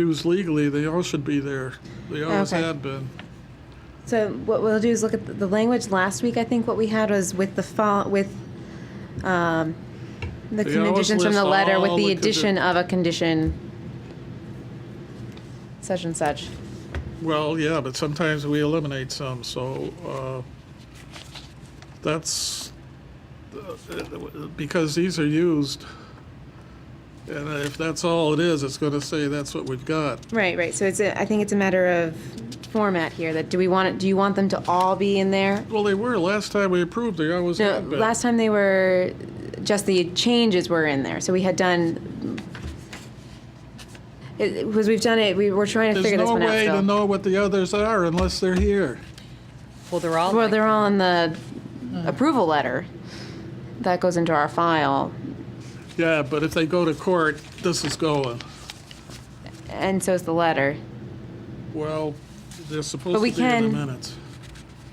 used legally, they all should be there. They always Okay. had been. So what we'll do is look at the- the language. Last week, I think what we had was with the fol, with, um, the They always conditions from the list letter with all the the condi- addition of a condition such and such. Well, yeah, but sometimes we eliminate some, so, uh, that's, uh, because these are used, and if that's all it is, it's gonna say that's what we've got. Right, right. So it's, a- I think it's a matter of format here, that do we want it, do you want them to all be in there? Well, they were, last time we approved, they always No, had been. last time they were, just the changes were in there, so we had done, it, it was, we've done it, we were trying to There's figure this no one out way to still. know what the others are unless they're here. Well, they're all. Well, like- they're all in the approval letter. That goes into our file. Yeah, but if they go to court, this is going. And so is the letter. Well, they're supposed But to we be in the can- minutes.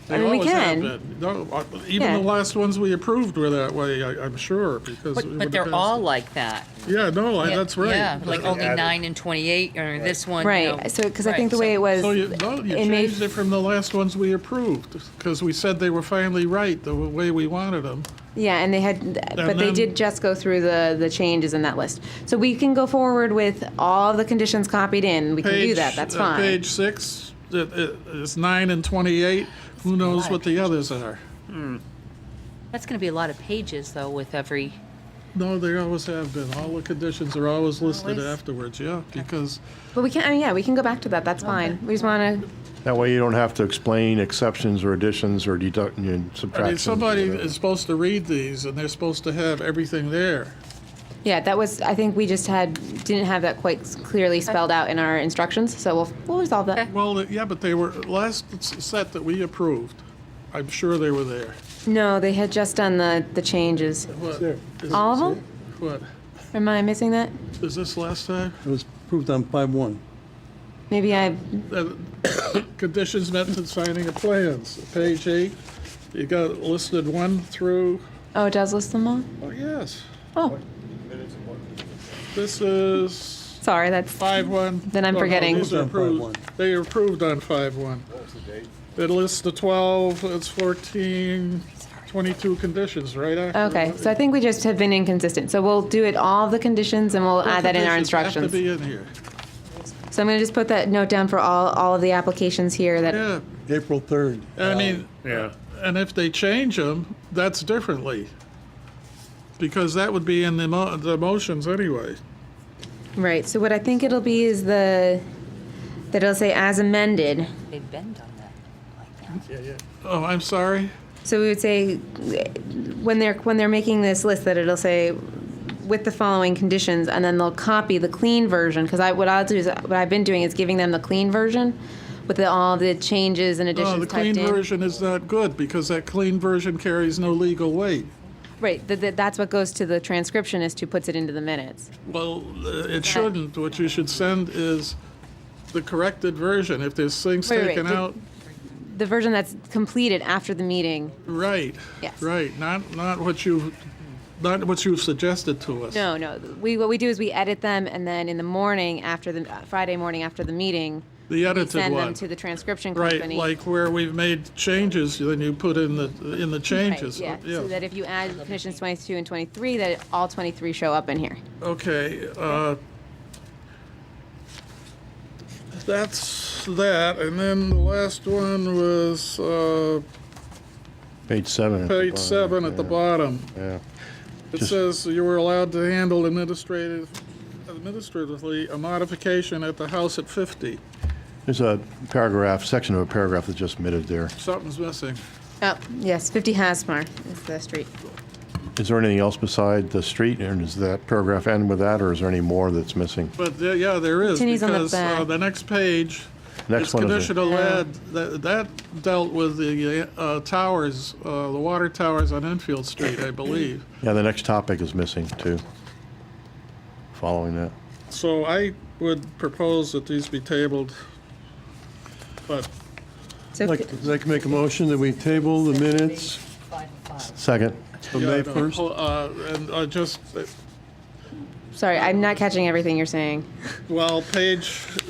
I mean, we can. They always have been. No, uh, even Yeah. the last ones we approved were that way, I- I'm sure, because. we But, would've but they're passed all it. like that. Yeah, no, I- that's right. Yeah, like But- only nine and twenty-eight, or this one. you know. Right, so, because I Right, think the so- way it was, So you, uh, no, you it may- changed it from the last ones we approved, because we said they were finally right, the way we wanted them. yeah, and they had, but they then- did just go through the, the changes in that list. So we can go forward with all the conditions copied in. We can do that, Page- that's uh, fine. Page six, it- it- it's nine and 28, who knows what the others are? That's gonna be a lot of pages, though, with every, No, they always have been, all the conditions are always listed Always? afterwards, yeah, because But we can, I mean, yeah, we can go back to that, that's fine. We just want to, That way you don't have to explain exceptions or additions or deduct, you know, I mean, subtractions. somebody is supposed to read these, and they're supposed to have everything there. yeah, that was, I think we just had, didn't have that quite clearly spelled out in our instructions, so we'll, we'll resolve that. Well, yeah, but they were, last s- set that we approved, I'm sure they were there. No, they had just done the, the changes. What? is- All of them? What, Am I missing that? is this last time? It was approved on five one. Maybe I, Uh, Conditions met to signing of plans, page eight, you got listed one through, oh, it does list them all? oh, yes. Oh, This is sorry, that's, five one. Then I'm Oh, no, forgetting. these are Approved on approved. 5-1. They are approved on five one. It lists the twelve, it's 14, 22 conditions, right? after okay, that. so I think we just have been inconsistent. So we'll do it all the conditions and we'll add Ah, that in our Conditions instructions. Have to be in here, So I'm gonna just put that note down for all, all of the applications here that, yeah, April third. I mean, and if they change them, that's differently. Because that would be in the mo- the motions anyway. right, so what I think it'll be is the, that it'll say as amended. they've been done that, like that. Oh, I'm sorry, So we would say, when they're, when they're making this list, that it'll say with the following conditions, and then they'll copy the clean version, because I, what I'll do is, what I've been doing is giving them the clean version with the, all the changes and no, additions Oh, the typed clean in. version is not good, because that clean version carries no legal weight. Right, that, that- that's what goes to the transcriptionist who puts it into the minutes. Well, uh, it shouldn't. What you should send is the corrected version. If there's things Wait, wait, taken did- out, The version that's completed after the meeting, right. Yes. Right, not, not what you, not what you've suggested to us. no, no, we, what we do is we edit them, and then in the morning, after the, Friday morning after the meeting, The we edited send them one. to the transcription company. Right, like where we've made changes, then you put in the, in the Right, changes. Oh, Yeah, so that if you add conditions 22 and 23, that all 23 show up in here. Okay, uh, that's that. And then the last one was, uh, Page seven. at the page bottom, seven at the yeah, bottom. Yeah. It Just- says you were allowed to handle administrative, administratively, a modification at the house at 50. There's a paragraph, section of a paragraph that's just omitted there. Something's missing. Oh, yes, 50 Hasmar is the street. Is there anything else beside the street? And does that paragraph end with that, or is there any more that's missing? But, uh, yeah, there is, Tinny's on the because uh, back. the next page, Next it's one is a- conditional add, that that dealt with the uh, towers, uh, the water towers on Enfield Street, I believe. Yeah, the next topic is missing, too. Following that. So I would propose that these be tabled, but So, Like, I'd like to make a motion that we table the minutes Second. of Yeah, I May know. first. Hol- uh, And uh, just, uh, Sorry, I'm not catching everything you're saying. Well, page